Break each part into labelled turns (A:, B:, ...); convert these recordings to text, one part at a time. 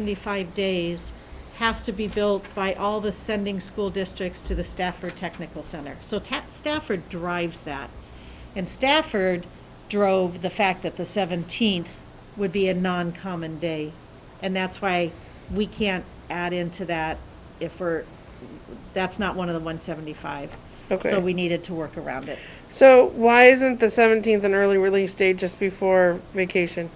A: 75 days has to be built by all the sending school districts to the Stafford Technical Center. So Ta- Stafford drives that. And Stafford drove the fact that the 17th would be a non-common day. And that's why we can't add into that if we're, that's not one of the 175.
B: Okay.
A: So we needed to work around it.
B: So why isn't the seventeenth an early release date just before vacation?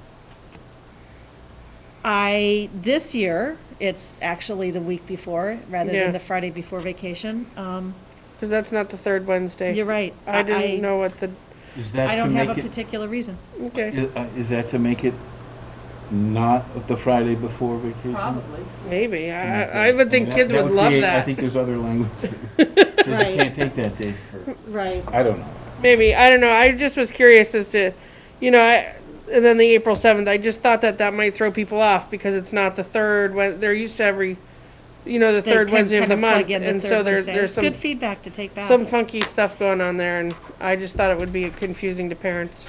A: I, this year, it's actually the week before, rather
B: Yeah.
A: than the Friday before vacation. Um,
B: Because that's not the third Wednesday.
A: You're right.
B: I didn't know what the,
C: Is
A: I
C: that to
A: don't have a
C: make it,
A: particular reason.
B: okay,
C: i- uh, is that to make it not the Friday before vacation?
D: Probably.
B: maybe.
C: To
B: I,
C: make
B: I I
C: that-
B: would think
C: that-
B: kids
C: that
B: would love
C: create- I
B: that.
C: think there's other language that says
A: Right.
C: you can't take that day for,
A: Right.
C: I don't know.
B: Maybe, I don't know. I just was curious as to, you know, I, and then the April seventh, I just thought that that might throw people off because it's not the third, Wed- they're used to every, you know, the
A: They
B: third
A: can
B: Wednesday of
A: kind
B: the
A: of plug
B: month.
A: in the
B: And
A: third
B: so there's,
A: Wednesday.
B: there's
A: It's
B: some,
A: Good feedback to take back.
B: some funky stuff going on there and I just thought it would be confusing to parents.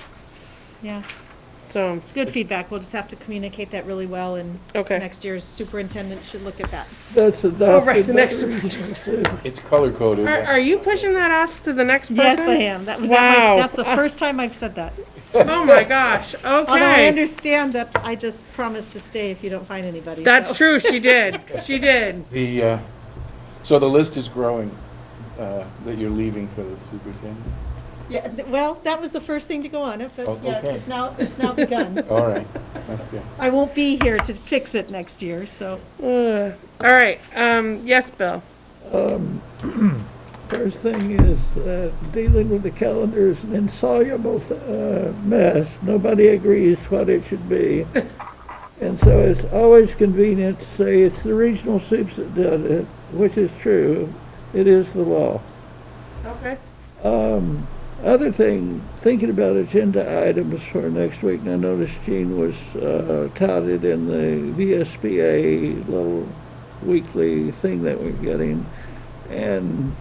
A: Yeah,
B: So,
A: it's good feedback. We'll just have to communicate that really well and
B: okay.
A: next year's superintendent should look at that.
E: That's
B: Oh, right,
E: adopted.
B: the next one.
C: It's color coded.
B: Are, are you pushing that off to the next person?
A: Yes, I am. That was, at my-
B: Wow.
A: that's the first time I've said that.
B: Oh my gosh.
A: Although I
B: Okay.
A: understand that I just promised to stay if you don't find anybody. so-
B: That's true. She did. She did.
C: The, uh, so the list is growing, uh, that you're leaving for the superintendent?
A: Yeah, th- well, that was the first thing to go on it, but
C: Oh,
A: yeah,
C: okay.
A: it's now, it's now begun.
C: All right, okay.
A: I won't be here to fix it next year, so.
B: Ugh. All right. Um, yes, Bill.
E: First thing is, uh, dealing with the calendar is an insoluble uh, mess. Nobody agrees what it should be. And so it's always convenient to say it's the regional soups that does it, which is true. It is the law.
B: Okay.
E: Um, other thing, thinking about agenda items for next week, and I noticed Jean was, uh, touted in the VSBA little weekly thing that we're getting. And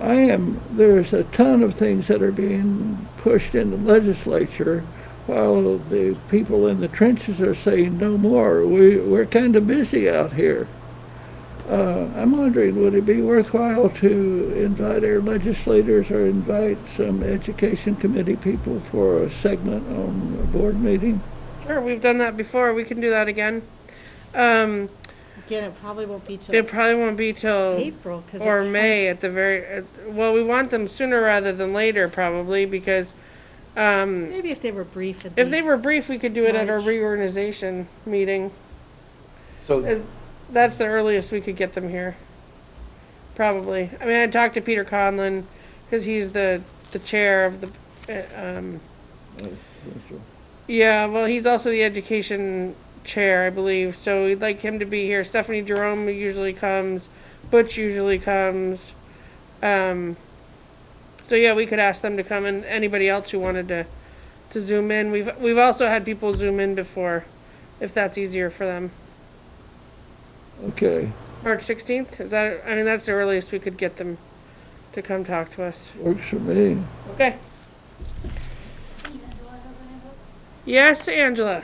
E: I am, there's a ton of things that are being pushed in the legislature while the people in the trenches are saying no more. We, we're kind of busy out here. Uh, I'm wondering, would it be worthwhile to invite our legislators or invite some education committee people for a segment on a board meeting?
B: Sure. We've done that before. We can do that again. Um,
A: Again, it probably won't be till
B: it probably won't be till
A: April, because it's.
B: or
A: hard-
B: May at the very. At, well, we want them sooner rather than later, probably because um,
A: Maybe if they were brief. it'd
B: if
A: be-
B: they were brief, we could do it at our
A: March.
B: reorganization meeting.
C: So,
B: Uh, That's the earliest we could get them here. Probably. I mean, I talked to Peter Conlon, because he's the, the chair of the, uh, um, yeah, well, he's also the education chair, I believe, so we'd like him to be here. Stephanie Jerome usually comes, Butch usually comes. Um, so yeah, we could ask them to come and anybody else who wanted to, to zoom in. We've, we've also had people zoom in before, if that's easier for them.
E: Okay,
B: March sixteenth, is that, I mean, that's the earliest we could get them to come talk to us.
E: works for me.
B: Okay. Yes, Angela.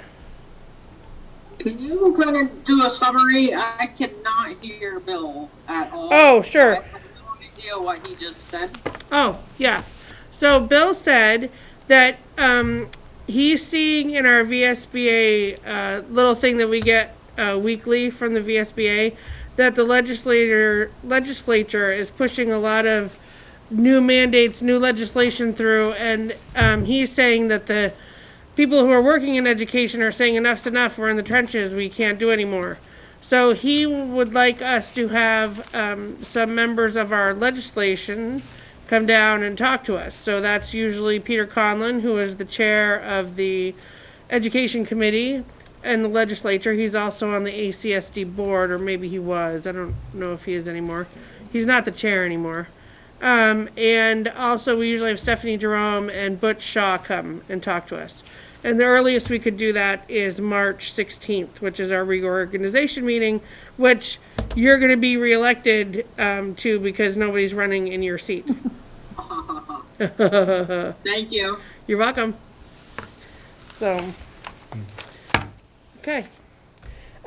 F: Can you kind of do a summary? I cannot hear Bill at all.
B: Oh,
F: I
B: sure.
F: have no idea what he just said.
B: Oh, yeah. So Bill said that um, he's seeing in our VSBA uh, little thing that we get uh, weekly from the VSBA that the legislator legislature is pushing a lot of new mandates, new legislation through, and um, he's saying that the people who are working in education are saying enough's enough. We're in the trenches. We can't do anymore. So he would like us to have um, some members of our legislation come down and talk to us. So that's usually Peter Conlon, who is the chair of the Education Committee and the legislature. He's also on the ACSD board, or maybe he was. I don't know if he is anymore. He's not the chair anymore. Um, and also, we usually have Stephanie Jerome and Butch Shaw come and talk to us. And the earliest we could do that is March 16th, which is our reorganization meeting, which you're going to be reelected um, to because nobody's running in your seat.
F: Thank you.
B: You're welcome. So, okay.